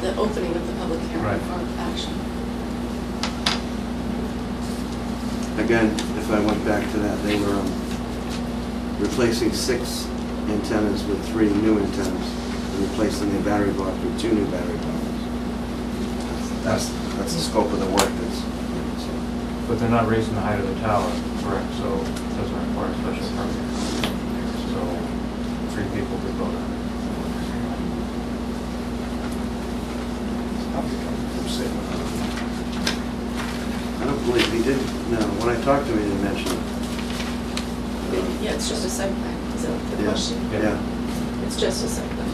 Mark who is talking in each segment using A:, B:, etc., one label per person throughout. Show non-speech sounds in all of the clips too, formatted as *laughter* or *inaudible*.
A: the opening of the public hearing
B: Right.
A: for action.
C: Again, if I went back to that, they were um, replacing six antennas with three new antennas and replacing their battery block with two new battery blocks. That's, that's the scope of the work that's, so,
B: But they're not raising the height of the tower, correct, so it doesn't require a special permit. So three people could vote on it.
C: I don't believe he did, no, when I talked to him, he didn't mention it.
A: Yeah, it's just a site plan, is that the
C: Yeah,
A: question?
C: Yeah,
A: It's just a site plan.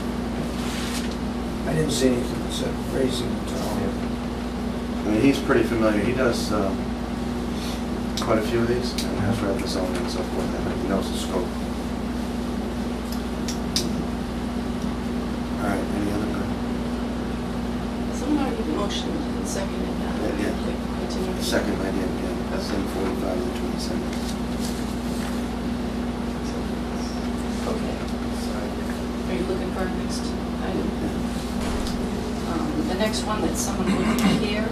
D: I didn't see anything that said raising the tower.
B: Yeah.
C: I mean, he's pretty familiar, he does um, quite a few of these, and has read the zoning and so forth, and he knows the scope. All right, any other,
A: Someone already motioned and seconded that.
C: Yeah, yeah.
A: Like, continue.
C: second idea, yeah, that's in forty-five and twenty-seven.
A: Okay. Are you looking for our next item? Um, The next one that someone will be here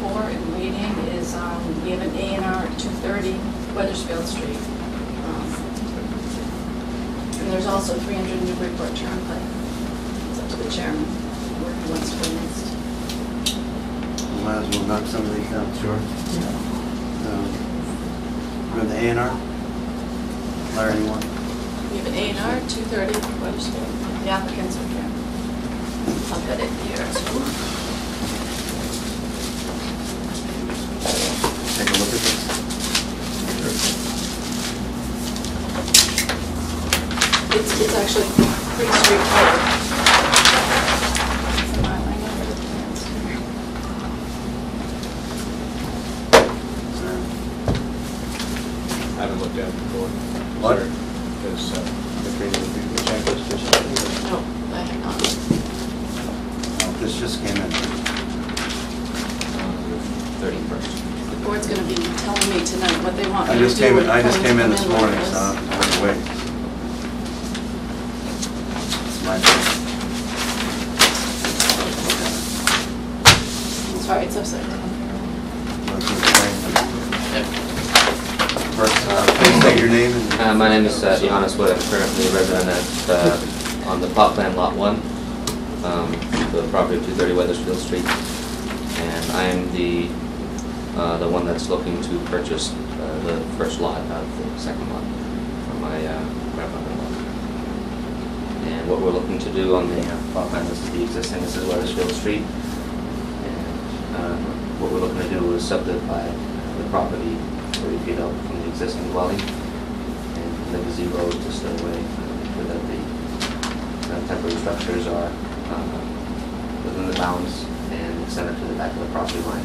A: for and waiting is, um, we have an A and R at 230 Weathersfield Street. Um, And there's also 300 Newburyport Turnpike. It's up to the chairman where he wants to go next.
C: Might as well knock some of these down.
B: Sure.
C: Um, We have the A and R. Larry, you want?
A: We have an A and R, 230 Weathersfield. The applicants are here. I've got it here. so-
C: Take a look at this.
A: It's, it's actually pretty straightforward. Come on, I know where the plans are.
E: Haven't looked at it before.
C: What?
E: Because, uh,
A: No, I have not.
C: Oh, This just came in.
E: Thirty-first.
A: The board's gonna be telling me tonight what they want me
C: I
A: to do.
C: just came in, I
A: and
C: just
A: when
C: came in
A: to
C: this
A: come
C: morning,
A: like
C: so
A: this.
C: I'm gonna wait. It's my fault.
A: Sorry, it's upside down.
C: Let's just wait. First, uh, please state your name and.
F: Uh, my name is uh, Johannes Wood. I'm currently a resident at, uh, on the plot plan lot one, um, the property of two thirty Weathersfield Street. And I am the, uh, the one that's looking to purchase, uh, the first lot out of the second lot from my, uh, grandfather-in-law. And what we're looking to do on the uh, plot plan, this is the existing, this is Weathersfield Street. And um, what we're looking to do is subdivide the property 30 feet out from the existing dwelling and from the gazebo to stay away, uh, so that the uh, temporary structures are um, within the bounds and extended to the back of the property line.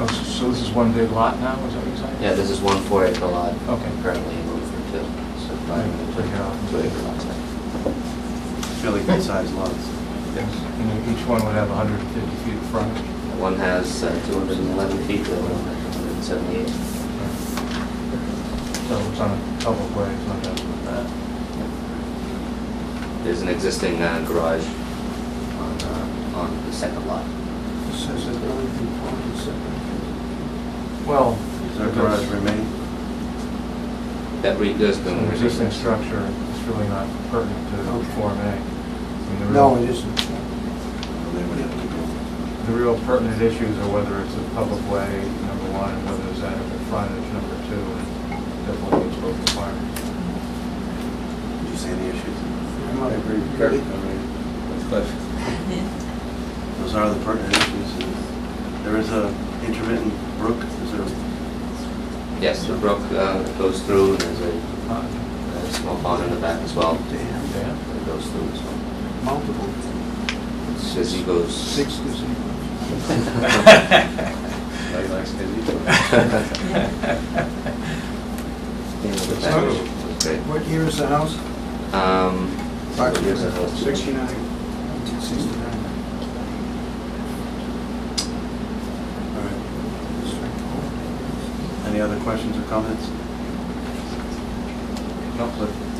B: Oh, so- so this is one big lot now, is that what you're saying?
F: Yeah, this is one four acre lot.
B: Okay.
F: Currently in Wilfred Hill, so
B: Right, take it off.
F: five, two acre lots.
C: Fairly good sized lots.
B: Yes. And each one would have 150 feet of frontage.
F: One has uh, 211 feet, the other one has 178.
B: So it's on a public way, it's not just with that.
F: Uh, There's an existing uh, garage on, uh, on the second lot.
D: It says that the only component separate.
B: Well.
C: Does our garage remain?
F: That re, there's
B: It's
F: been
B: an existing
F: resistance.
B: structure, it's really not pertinent to Form A. I mean,
E: Mm-hmm.
B: the
D: No,
B: real-
D: it isn't.
C: Well, They would have to go.
B: The real pertinent issues are whether it's a public way, number one, and whether there's adequate frontage, number two, and definitely it's both requirements.
C: Did you see any issues?
D: not-
C: I agree with Kirk. I mean, Those are the pertinent issues. and There is a intermittent brook, is there?
F: Yes, the brook uh, goes through, and there's a
B: Uh,
F: a small pond in the back as well.
D: Damn,
B: Dan?
F: It goes through as well.
D: multiple,
F: Says he goes.
D: six gazebos.
C: Like, like, *laughs*
F: Yeah, the back
D: So-
F: is great.
D: What year is the house?
F: Um, uh, here's a house.
D: Sixty-nine. Nineteen sixty-nine.
C: All right. Any other questions or comments? No, Cliff.